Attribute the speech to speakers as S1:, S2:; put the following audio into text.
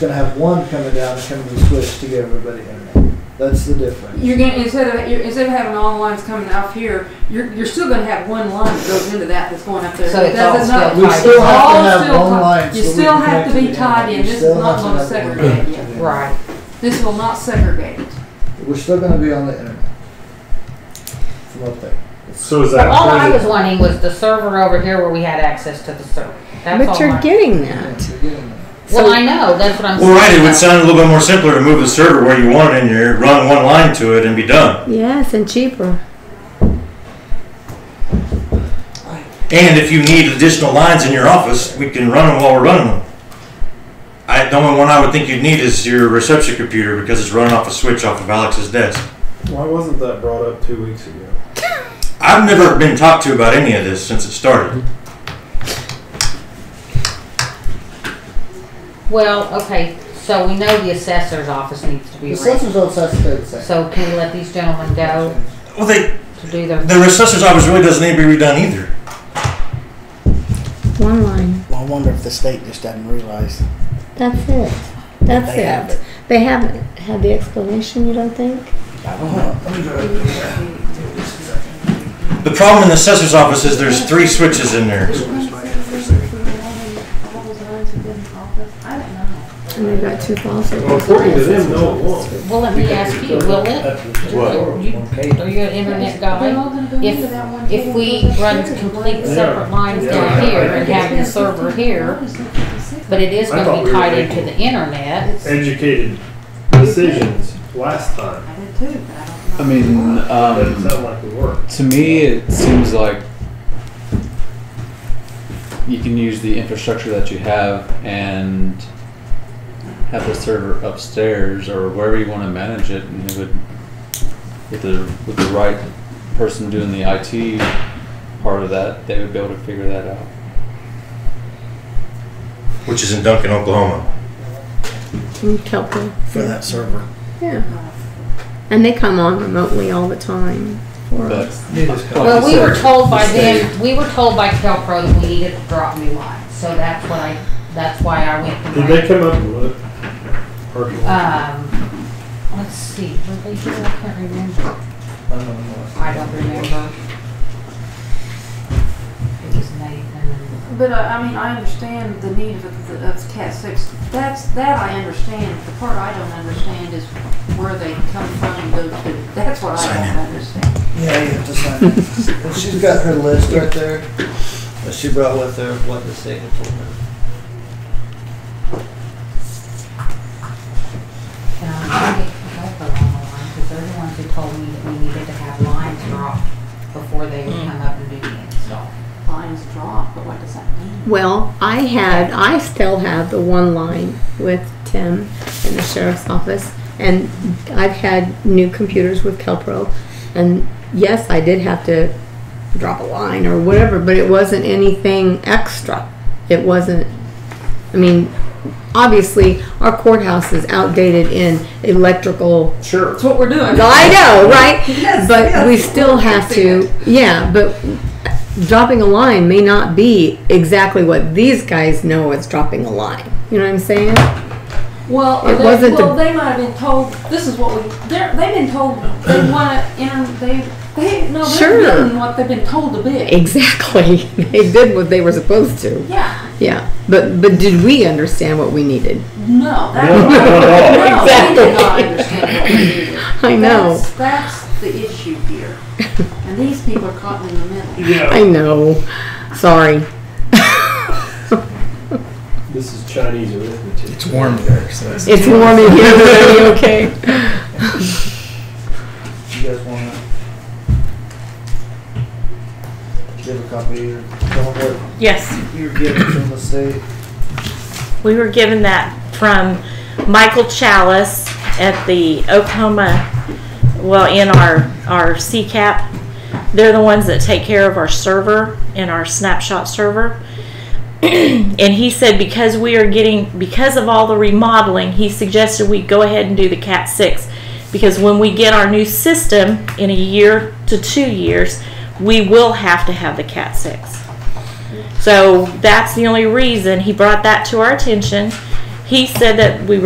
S1: gonna have one coming down and coming to the switch to get everybody in there. That's the difference.
S2: You're gonna instead of you're, instead of having all lines coming off here, you're you're still gonna have one line that goes into that that's going up there.
S3: So it's
S2: That-
S3: all
S2: that's
S3: still
S2: not-
S1: We still have to
S2: all
S1: have
S2: still
S1: one
S2: tied.
S1: line.
S2: You
S1: so we
S2: still
S1: can
S2: have to be
S1: connect the
S2: tied in.
S1: internet. You
S2: This
S1: still
S2: is not
S1: have
S2: gonna
S1: have one
S2: segregate
S1: connected to the
S3: Right.
S2: This will not segregate.
S1: internet. We're still gonna be on the internet. From up there.
S4: So is that
S3: All I
S4: included?
S3: was wanting was the server over here where we had access to the server. That's all
S5: But you're
S3: I-
S5: getting
S1: Yeah,
S5: that.
S1: you're getting there.
S3: Well, I know, that's what I'm saying.
S4: Well, right, it would sound a little bit more simpler to move the server where you want it in there, run one line to it, and be done.
S5: Yes, and cheaper.
S4: And if you need additional lines in your office, we can run them while we're running them. I, the only one I would think you'd need is your reception computer because it's running off a switch off of Alex's desk.
S6: Why wasn't that brought up two weeks ago?
S4: I've never been talked to about any of this since it started.
S3: Well, okay, so we know the assessor's office needs to be
S1: The
S3: arranged.
S1: census office has to stay the same.
S3: So can we let these gentlemen go
S4: Well, they,
S3: to do their?
S4: the assessor's office really doesn't need to be redone either.
S5: One line.
S7: Well, I wonder if the state just doesn't realize.
S5: That's it. That's
S7: They have
S5: it.
S7: it.
S5: They haven't had the explanation, you don't think?
S7: I don't know.
S4: The problem in the assessor's office is there's three switches in there.
S5: And they've got two faucets.
S6: Well, according to them, no, it won't.
S3: Well, let me ask you, will it? You- Are you an internet guy?
S2: If
S3: If we run complete separate lines down
S6: Yeah.
S3: here and have the server here, but it is
S6: I
S3: gonna
S6: thought
S3: be
S6: we were
S3: tied into
S6: making-
S3: the internet.
S6: Educated decisions last time.
S2: I did too, but I don't know.
S8: I mean,
S6: Doesn't
S8: um,
S6: sound like we were.
S8: to me, it seems like you can use the infrastructure that you have and have the server upstairs or wherever you want to manage it, and it would with the with the right person doing the IT part of that, they would be able to figure that out.
S4: Which is in Duncan, Oklahoma.
S5: And Kelpie.
S7: For that server.
S5: Yeah. And they come on remotely all the time for
S8: But
S5: us.
S8: like you
S3: Well, we were
S8: said,
S3: told by them, we were told by Kelpro that we needed to drop new lines, so that's what I, that's why I went. to
S6: Did
S3: my-
S6: they come up with it? Or-
S3: Um, let's see, were they here? I can't remember. I don't remember. It was Nathan.
S2: But uh, I mean, I understand the need of, the- of Cat Six. That's that I understand. The part I don't understand is where they come from and go to. That's what I don't understand.
S1: Yeah, you have to sign it. And she's got her list right there that she brought with her of what the state had told her.
S3: And I'm trying to get Kelco on the line, because they're the ones who told me that we needed to have lines dropped before they would come up and do the install.
S2: Lines drawn, but what does that mean?
S5: Well, I had, I still have the one line with Tim in the sheriff's office, and I've had new computers with Kelpro, and yes, I did have to drop a line or whatever, but it wasn't anything extra. It wasn't, I mean, obviously, our courthouse is outdated in electrical
S6: Sure.
S2: That's what we're doing.
S5: I know, right?
S2: Yes,
S5: but
S2: yes.
S5: we still have to, yeah, but dropping a line may not be exactly what these guys know as dropping a line. You know what I'm saying?
S2: Well,
S5: It
S2: they,
S5: wasn't
S2: well,
S5: the-
S2: they might have been told. This is what we. They're, they've been told they want to. enter they they no. They're
S5: Sure. Eh.
S2: doing what they've been told to be.
S5: Exactly. They did what they were supposed to.
S2: Yeah.
S5: Yeah. But but did we understand what we needed?
S2: No. That's no,
S6: No, not at all.
S2: they did not
S5: Exactly.
S2: understand what we needed.
S5: I know.
S2: That's, that's the issue here. And these people are caught in the middle.
S5: I know. Sorry.
S6: This is Chinese arithmetic.
S7: It's warm there, so it's.
S5: It's warm in here already, okay?
S1: You guys want to give a copy or tell them what
S9: Yes,
S1: you're getting from the state?
S9: we were given that from Michael Chalice at the Oklahoma, well, in our, our CCAP. They're the ones that take care of our server and our snapshot server. And he said because we are getting, because of all the remodeling, he suggested we go ahead and do the Cat 6. Because when we get our new system in a year to two years, we will have to have the Cat 6. So that's the only reason he brought that to our attention.
S3: he said that we